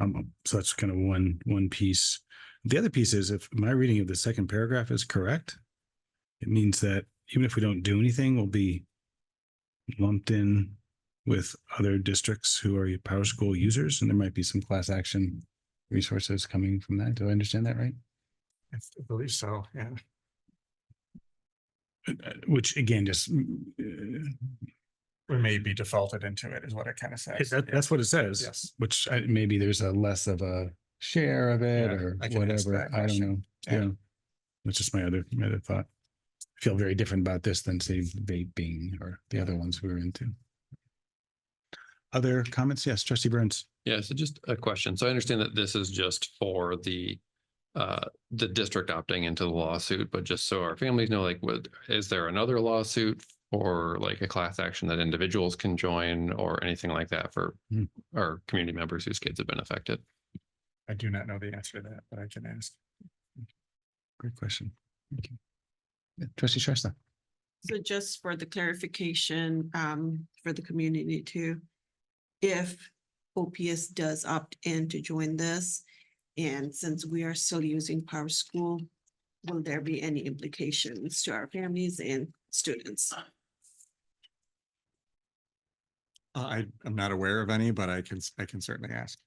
Um, so that's kind of one, one piece. The other piece is if my reading of the second paragraph is correct, it means that even if we don't do anything, we'll be lumped in with other districts who are Power School users, and there might be some class action resources coming from that. Do I understand that right? I believe so, yeah. Uh, Which again, just uh, We may be defaulted into it is what it kind of It- says. That, that's what it says, Yes. which I, maybe there's a less of a share of it Yeah, or I can answer whatever. that I don't question. know. Yeah. Yeah. That's just my other, my other thought. I Feel very different about this than say vaping or the other ones we were into. Other comments? Yes, trustee Burns. Yeah, so just a question. So I understand that this is just for the uh, the district opting into the lawsuit, but just so our families know, like, what, is there another lawsuit? Or like a class action that individuals can join or anything like that for Hmm. our community members whose kids have been affected? I do not know the answer to that, but I can ask. Great question. Thank you. Yeah, Trustee Shrestha. So just for the clarification, um, for the community too. If OPS does opt in to join this, and since we are still using Power School, will there be any implications to our families and students? Uh, I, I'm not aware of any, but I can, I can certainly ask.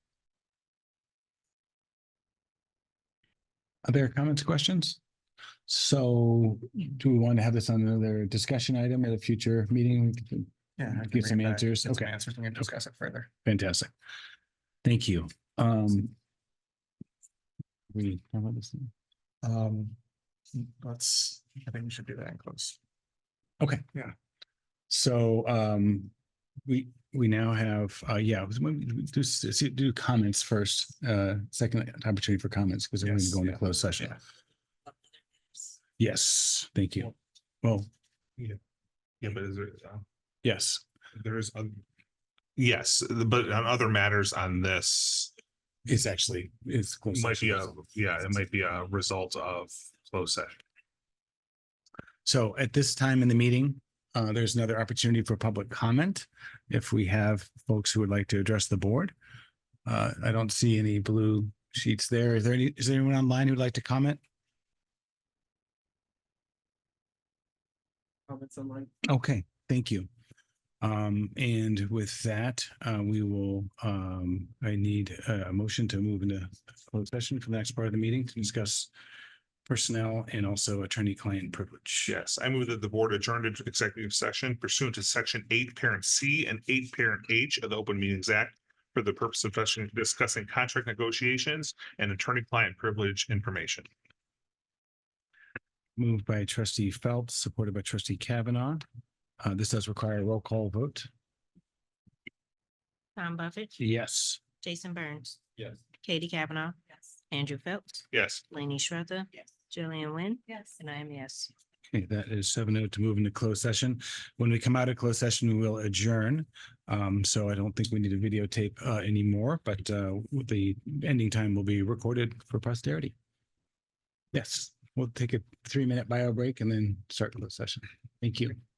Other comments, questions? So do we want to have this on another discussion item at a future meeting? Yeah. I can Give some bring it back, answers. get some Okay. Answers, we can discuss it further. Fantastic. Thank you. Um. We, how about this? thing? Um, let's, I think we should do that in close. Okay. Yeah. So, um, we, we now have, uh, yeah, it was when we do, s- do comments first, uh, second opportunity for comments because we're going to Yes, go into yeah, closed session. yeah. Yes, thank you. Well, Yeah, but is there, uh, yes, there is, oth- yes, but on other matters on this, it's actually, it's. closed might be a, session. yeah, it might be a result of closed session. So at this time in the meeting, uh, there's another opportunity for public comment. If we have folks who would like to address the board. Uh, I don't see any blue sheets there. Is there any, is there anyone online who'd like to comment? Okay, thank you. Um, and with that, uh, we will, um, I need a a motion to move into closed session for the next part of the meeting to discuss personnel and also attorney-client privilege. Yes, I move that the board adjourned into executive session pursuant to section eight parent C and eight parent H of the Open Meetings Act for the purpose of discussing- discussing contract negotiations and attorney-client privilege information. Moved by trustee Phelps, supported by trustee Kavanaugh. Uh, this does require a roll call vote. Tom Buffett, Yes. Jason Burns, Yes. Katie Kavanaugh, Yes. Andrew Phelps, Yes. Laney Schroeder, Yes. Jillian Wynn, Yes. and I am yes. Okay, that is seven oh to move into closed session. When we come out of closed session, we will adjourn. Um, so I don't think we need to videotape uh anymore, but uh the ending time will be recorded for posterity. Yes, we'll take a three minute bio break and then start closed session. Thank you.